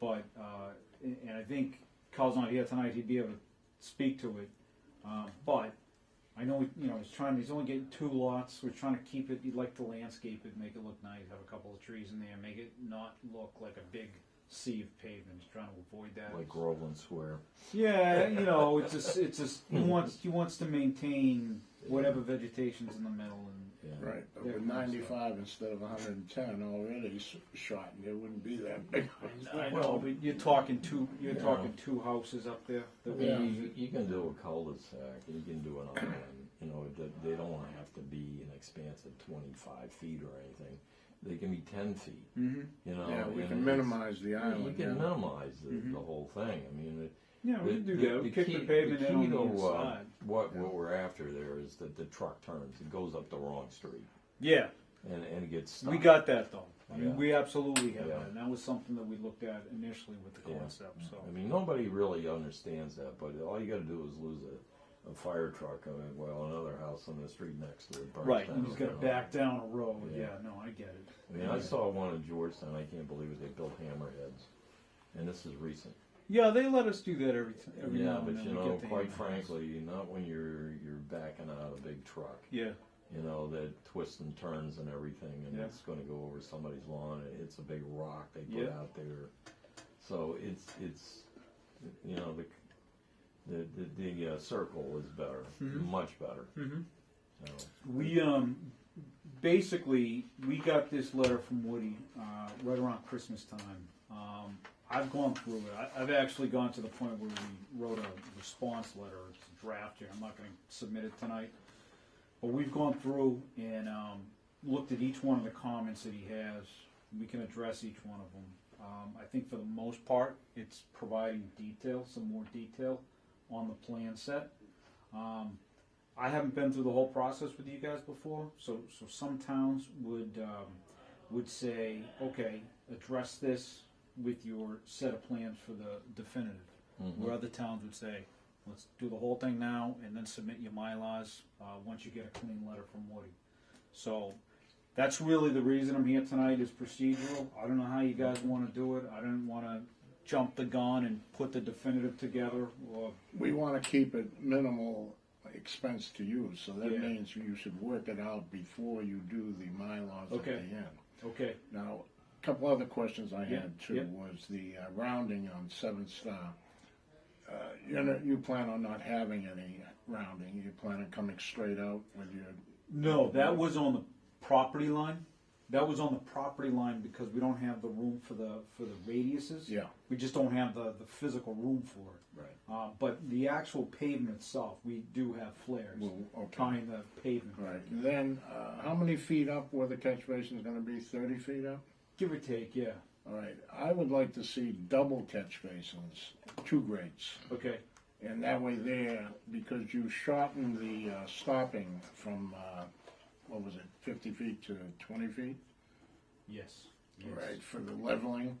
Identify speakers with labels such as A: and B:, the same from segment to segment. A: but, uh, and and I think Carl's not here tonight, he'd be able to speak to it. Um, but I know, you know, he's trying, he's only getting two lots, we're trying to keep it, you'd like to landscape it, make it look nice, have a couple of trees in there, make it not look like a big sea of pavement, he's trying to avoid that.
B: like Groveland Square.
A: Yeah, you know, it's just, it's just, he wants, he wants to maintain whatever vegetation's in the middle and,
B: Yeah.
C: Right, but with ninety-five instead of hundred and ten already s- shot, it wouldn't be that big.
A: I know, but you're talking two, you're
B: Yeah.
A: talking two houses up there. that we
B: Yeah,
A: use
B: you,
A: it.
B: you can do a cul-de-sac, you can do an island, you know, it do- they don't wanna have to be an expanse of twenty-five feet or anything. They can be ten feet,
A: Mm-hmm.
B: you know.
C: Yeah, we
B: and
C: can
B: it's-
C: minimize the
B: yeah, You
C: island.
B: can
C: yeah. Mm-hmm.
B: minimize the, the whole thing, I mean, it.
A: Yeah, we
B: the-
A: can do
B: the-
A: that. We
B: the
A: kick
B: key-
A: the pavement in
B: key
A: on the
B: to, uh,
A: inside.
B: What, what we're after there is that the truck turns, it goes up the wrong street
A: Yeah,
B: and, and it gets stuck.
A: we got that though. I mean,
B: uh, Yeah.
A: we absolutely have
B: Yeah.
A: that. And that was something that we looked at initially with the
B: Yeah. Mm-hmm.
A: concept, so.
B: I mean, nobody really understands that, but all you got to do is lose a, a fire truck, I mean, well, another house on the street next to it. burns
A: Right,
B: down,
A: and he's
B: you
A: gotta
B: know.
A: back down a road.
B: Yeah.
A: Yeah, no, I get it.
B: I mean, I saw one in Georgetown. I can't believe it. They built hammerheads, and this is recent.
A: Yeah, they let us do that every, t- every
B: yeah,
A: now and
B: but
A: then.
B: you
A: We
B: know,
A: get the
B: quite
A: in-house.
B: frankly, not when you're you're backing out a big truck.
A: Yeah,
B: You know that twists and turns and everything, and
A: Yeah.
B: it's going to go over somebody's lawn. It hits a big rock they put
A: Yeah.
B: out there. So it's it's you know the the the, the uh, circle is better, much better. Mm-hmm. So,
A: we, um, basically, we got this letter from Woody, uh, right around Christmas time. Um, I've gone through it. I, I've actually gone to the point where we wrote a response letter. It's a draft here. I'm not going to submit it tonight. But we've gone through and um, looked at each one of the comments that he has. We can address each one of them. Um, I think for the most part, it's providing detail, some more detail on the plan set. Um, I haven't been through the whole process with you guys before, so so some towns would um, would say, okay, address this with your set of plans for the definitive. Where other towns would say, let's do the whole thing now and then submit your mylars uh, once you get a clean letter from Woody. So that's really the reason I'm here tonight is procedural. I don't know how you guys want to do it. I don't want to jump the gun and put the definitive together or
C: We wanna keep it minimal expense to you, so
A: Yeah.
C: that means you should work it out before you do the Mylars at the
A: Okay.
C: end.
A: okay.
C: Now, a couple other questions I
A: Yeah,
C: had too
A: yeah.
C: was the uh, rounding on Seven Star. Uh, You know, you plan on not having any rounding, you plan on coming straight out with your,
A: No, that was on the property line. That was on the property line because we don't have the room for the, for the radiuses.
C: Yeah.
A: We just don't have the, the physical room for it.
C: Right.
A: Uh, but the actual pavement itself, we do have flares
C: Well, okay.
A: tying the pavement.
C: right, then, uh, how many feet up were the catch basin's gonna be, thirty feet up?
A: Give or take, yeah,
C: All right, I would like to see double catch basins, two grates.
A: okay,
C: And that way there, because you shortened the uh, stopping from, uh, what was it, fifty feet to twenty feet?
A: yes. yes.
C: right, for the leveling.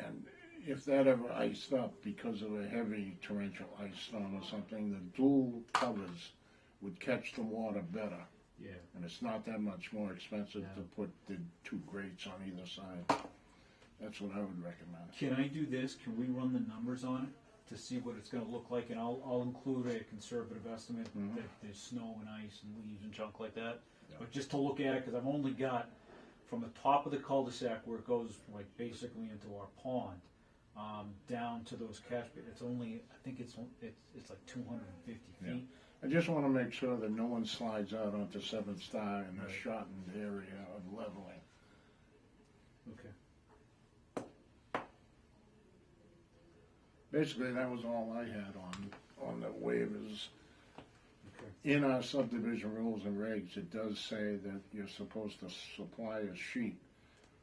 C: And if that ever iced up because of a heavy torrential ice storm or something, the dual covers would catch the water better.
A: Yeah,
C: And it's not that much more expensive to
A: Yeah.
C: put the two grates on either side. That's what I would recommend.
A: can I do this, can we run the numbers on it to see what it's gonna look like, and I'll, I'll include a conservative estimate that there's snow and ice and leaves and junk like that, but just to look at it, cause I've only got from the top of the cul-de-sac where it goes like basically into our pond, um, down to those catch, ba- it's only, I think it's, on- it's, it's like two hundred and fifty
C: Yeah.
A: feet.
C: I just want to make sure that no one slides out onto Seventh Star in a shortened area of leveling.
A: Okay.
C: Basically, that was all I had on, on the waivers.
A: Okay.
C: In our subdivision rules and regs, it does say that you're supposed to supply a sheet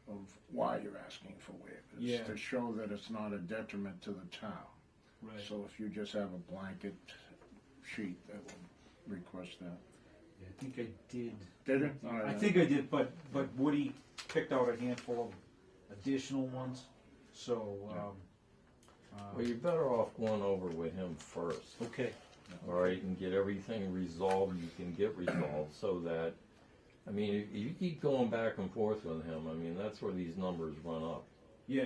C: of why you're asking for waivers.
A: Yeah.
C: To show that it's not a detriment to the town.
A: Right.
C: So if you just have a blanket sheet, that would request that.
A: Yeah, I think I did.
C: Did it? All
A: I
C: right.
A: think I did, but, but Woody picked out a handful of additional ones, so, um,
B: well, you're better off going over with him first.
A: okay,
B: All right, and get everything resolved you can get resolved so that, I mean, if you keep going back and forth with him, I mean, that's where these numbers run up.
A: yeah,